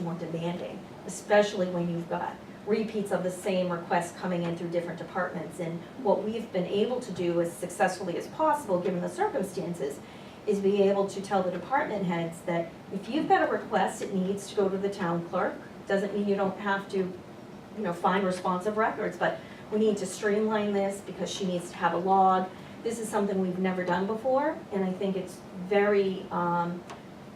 more demanding, especially when you've got repeats of the same requests coming in through different departments. And what we've been able to do as successfully as possible, given the circumstances, is be able to tell the department heads that if you've got a request, it needs to go to the town clerk. Doesn't mean you don't have to, you know, find responsive records, but we need to streamline this because she needs to have a log. This is something we've never done before, and I think it's very, um,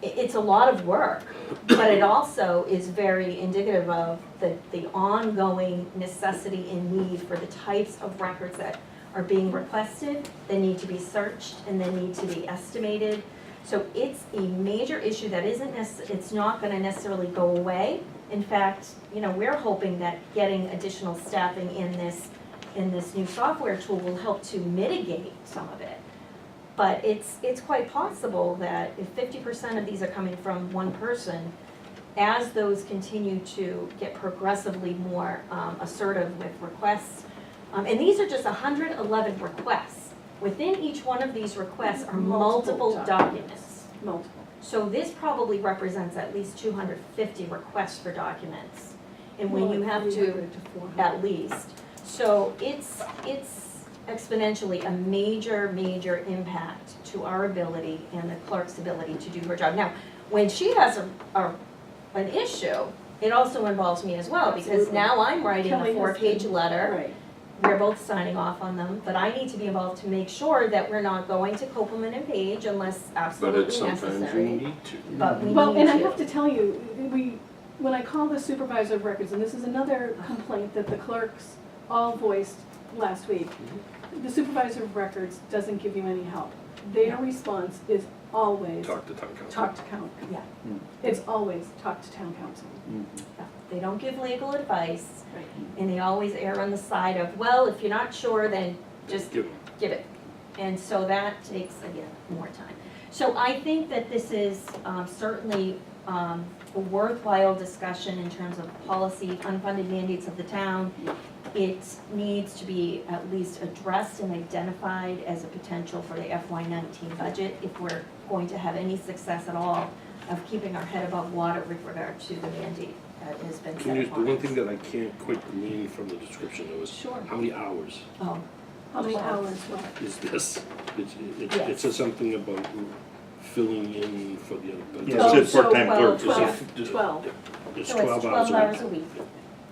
it, it's a lot of work, but it also is very indicative of the, the ongoing necessity and need for the types of records that are being requested, that need to be searched, and they need to be estimated. So it's a major issue that isn't necess, it's not gonna necessarily go away. In fact, you know, we're hoping that getting additional staffing in this, in this new software tool will help to mitigate some of it. But it's, it's quite possible that if fifty percent of these are coming from one person, as those continue to get progressively more um, assertive with requests, um, and these are just hundred eleven requests. Within each one of these requests are Multiple multiple documents. documents. Multiple. So this probably represents at least two hundred fifty requests for documents. And when you have to at least. So it's, it's exponentially a major, major impact to our ability and the clerk's ability to do her job. Now, when she has a, a, an issue, it also involves me as well, because Absolutely. now I'm writing a Kelly has four-page been- letter. Right, We're both signing off on them, but I need to be involved to make sure that we're not going to Copeland and Page unless But absolutely it's necessary. sometimes you need to. But we need to. well, and I have to tell you, we, when I called the supervisor of records, and this is another complaint that the clerks all voiced last week, Mm-hmm. the supervisor of records doesn't give you any help. Their response is always, Talk to town council. talk to count. Yeah. Mm. It's always, talk to town council. mm, Yeah, They don't give legal advice, Right. and they always err on the side of, well, if you're not sure, then just Give 'em. give it. And so that takes, again, more time. So I think that this is um, certainly um, a worthwhile discussion in terms of policy, unfunded mandates of the town. It needs to be at least addressed and identified as a potential for the FY nineteen budget if we're going to have any success at all of keeping our head above water with regard to the mandate that has been set Can you, the upon one us. thing that I can't quite glean from the description though is, Sure. how many hours Oh, How many Well. hours, well, is this? It's, it, it Yes. says something about filling in for the other. but Yeah, it said Oh, so part-time twelve, clerk. There's twelve. a- there's a- 12. It's So it's twelve hours a week. 12 hours a week.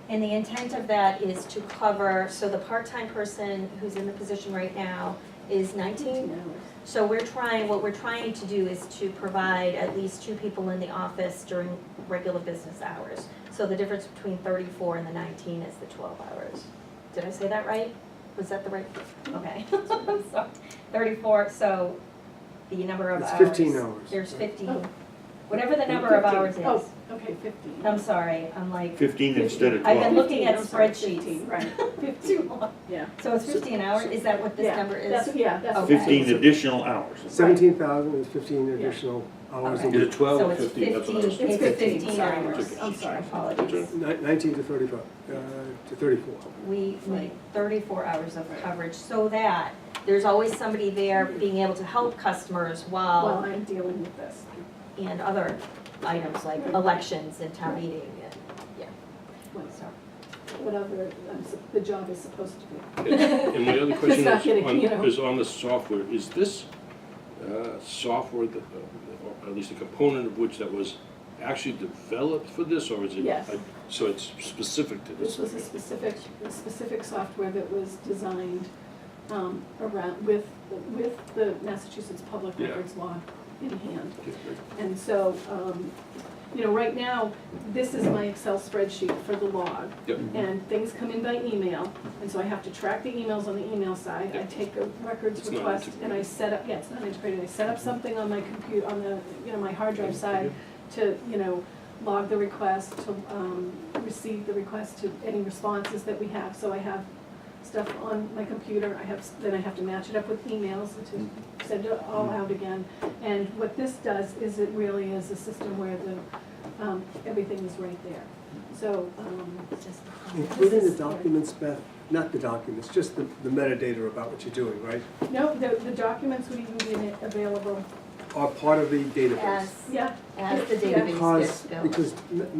And the intent of that is to cover, so the part-time person who's in the position right now is 18 19. hours. So we're trying, what we're trying to do is to provide at least two people in the office during regular business hours. So the difference between 34 and the 19 is the 12 hours. Did I say that right? Was that the right? Okay. I'm sorry. 34, so the number of It's hours. 15 hours. There's 15, Oh. whatever the number of 15. hours is. Oh, okay, fifteen. I'm sorry, I'm like, Fifteen instead of I've been twelve. looking at 15, I'm sorry, spreadsheets. 15, Right, too fifteen, long. yeah. So it's fifteen hours, is that what this Yeah, number That's, is? yeah, that's. what Okay. Fifteen additional hours. Seventeen thousand is fifteen Yeah. additional hours a Okay. Is it week, twelve So or it's fifteen? That's what I was- fifteen, it's fifteen sorry. hours, I'm sorry, apologies. Okay. Ni- nineteen to thirty-five, uh, to thirty-four. We need thirty-four hours of coverage so that there's always somebody there being able to help customers While while, I'm dealing with this. and other items like elections and town meeting and, What- so. Whatever um, s- the job is supposed to be. And my other question Just not is, kidding, you know. on, is on the software, is this, uh, software, that, uh, or at least a component of which that was actually developed for this, or is it? Yes. uh, So it's specific to this? This was a specific, a specific software that was designed um, around, with, with the Massachusetts Public Yeah. Records Law in hand. Okay, great. And so, um, you know, right now, this is my Excel spreadsheet for the log. Yep. And things come in by email, and so I have to track the emails on the email side. I Yep. take a records It's not request and I integrated. Mm-hmm. set up, yeah, it's not integrated. I set up something on my compute, on the, you know, my hard drive side to, you know, log the request, to um, receive the request, to any responses that we have. So I have stuff on my computer, I have, then I have to match it up with emails to Mm-hmm. send it all out again. And what this does is it really is a system where the, um, everything is right there. So, um, it's just- Including This the is- documents, Beth, not the documents, just the, the metadata about what you're doing, right? no, the, the documents would even be in- available, Are part of the database. As, yeah. as the Yeah. database Because, gets built. because